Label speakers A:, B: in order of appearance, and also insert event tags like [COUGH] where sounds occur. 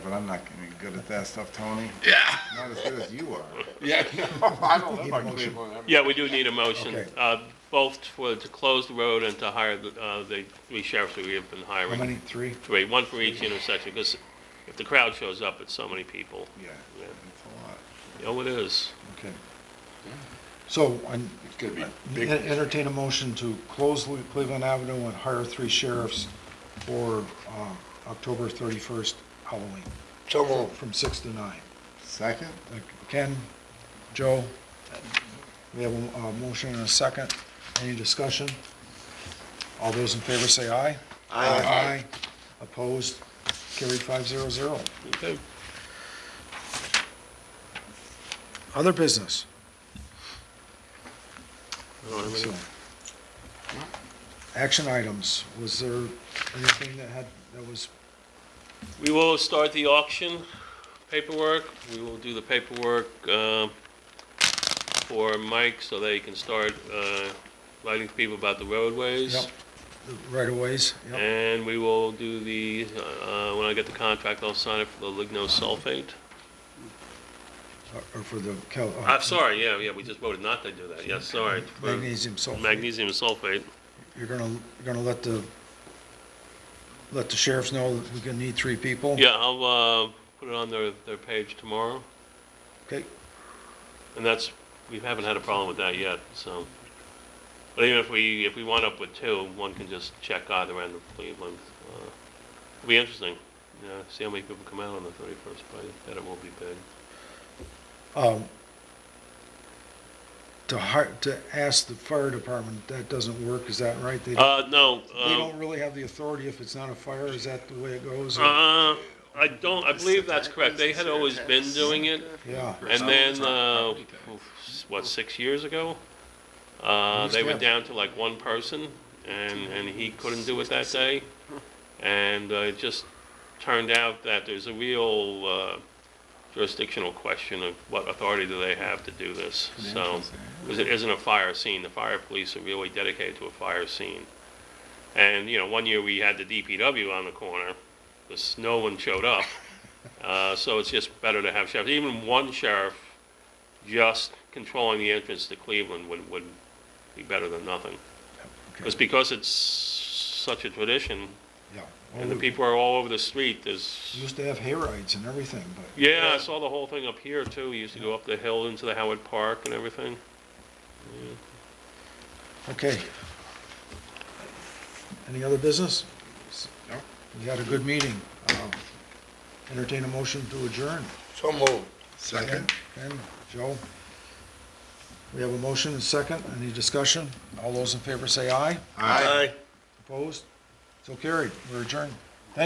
A: But I'm not any good at that stuff, Tony.
B: Yeah.
A: Not as good as you are.
B: Yeah, no, [LAUGHS] I don't live
A: Need a
B: on
A: motion.
B: Cleveland. I'm-
C: Yeah, we do need a motion,
A: Okay.
C: uh, both for, to close the road and to hire the, uh, the three sheriffs that we have been
A: How
C: hiring.
A: many? Three?
C: Three, one for each intersection, because if the crowd shows up, it's so many people.
A: Yeah,
C: Yeah.
A: that's a lot.
C: Oh, it is.
A: Okay. So, I'm-
B: It's gonna be big.
A: entertain a motion to close Cle- Cleveland Avenue and hire three sheriffs for uh, October 31st Halloween.
B: So
A: From 6 to 9. Second. Ken, Joe, we have a a motion and a second. Any discussion? All those in favor say aye. Aye. Opposed? Carried 500.
C: Okay.
A: Other business?
C: I don't have
A: So,
C: any-
A: Action items, was there anything that had, that was,
C: We will start the auction paperwork, we will do the paperwork, uh, for Mike, so that he can start, uh, lighting people about the roadways.
A: yep, right of ways? Yep,
C: And we will do the, uh, when I get the contract, I'll sign it for the lignosulfate.
A: or for the cal. uh,
C: I'm sorry, yeah, yeah, we just voted not to do that, yes, sorry. for
A: Magnesium sulfate.
C: Magnesium sulfate,
A: You're gonna, you're gonna let the, let the sheriffs know that we're gonna need three people?
C: yeah, I'll, uh, put it on their, their page tomorrow,
A: Okay,
C: and that's, we haven't had a problem with that yet, so. But even if we, if we wind up with two, one can just check either end of Cleveland. Uh, It'll be interesting, you know, see how many people come out on the thirty-first, but I bet it won't be big.
A: um, to hire, to ask the fire department, that doesn't work, is that right? They,
C: Uh, no,
A: they
C: um,
A: don't really have the authority if it's not a fire, is that the way it goes? or-
C: Uh, I don't, I believe that's correct. They had always been doing it,
A: Yeah,
C: and then, uh, oof, what, six years ago? Uh, they went down to like one person, and, and he couldn't do it that day. And uh, it just turned out that there's a real uh, jurisdictional question of what authority do they have to do this? So, because it isn't a fire scene. The fire police are really dedicated to a fire scene. And, you know, one year we had the DPW on the corner, because no one showed up. Uh, so it's just better to have sheriffs. Even one sheriff just controlling the entrance to Cleveland would, would be better than nothing. Because, because it's such a tradition,
A: yeah.
C: and the people are all over the street, there's,
A: Used to have hayrides and everything, but.
C: yeah, I saw the whole thing up here too. We used to go up the hill into the Howard Park and everything.
A: Okay. Any other business? We had a good meeting. Uh, Entertain a motion to adjourn.
B: So moved.
A: Ken, Joe? We have a motion and second. Any discussion? All those in favor say aye.
B: Aye.
A: Opposed? So carried. We're adjourned.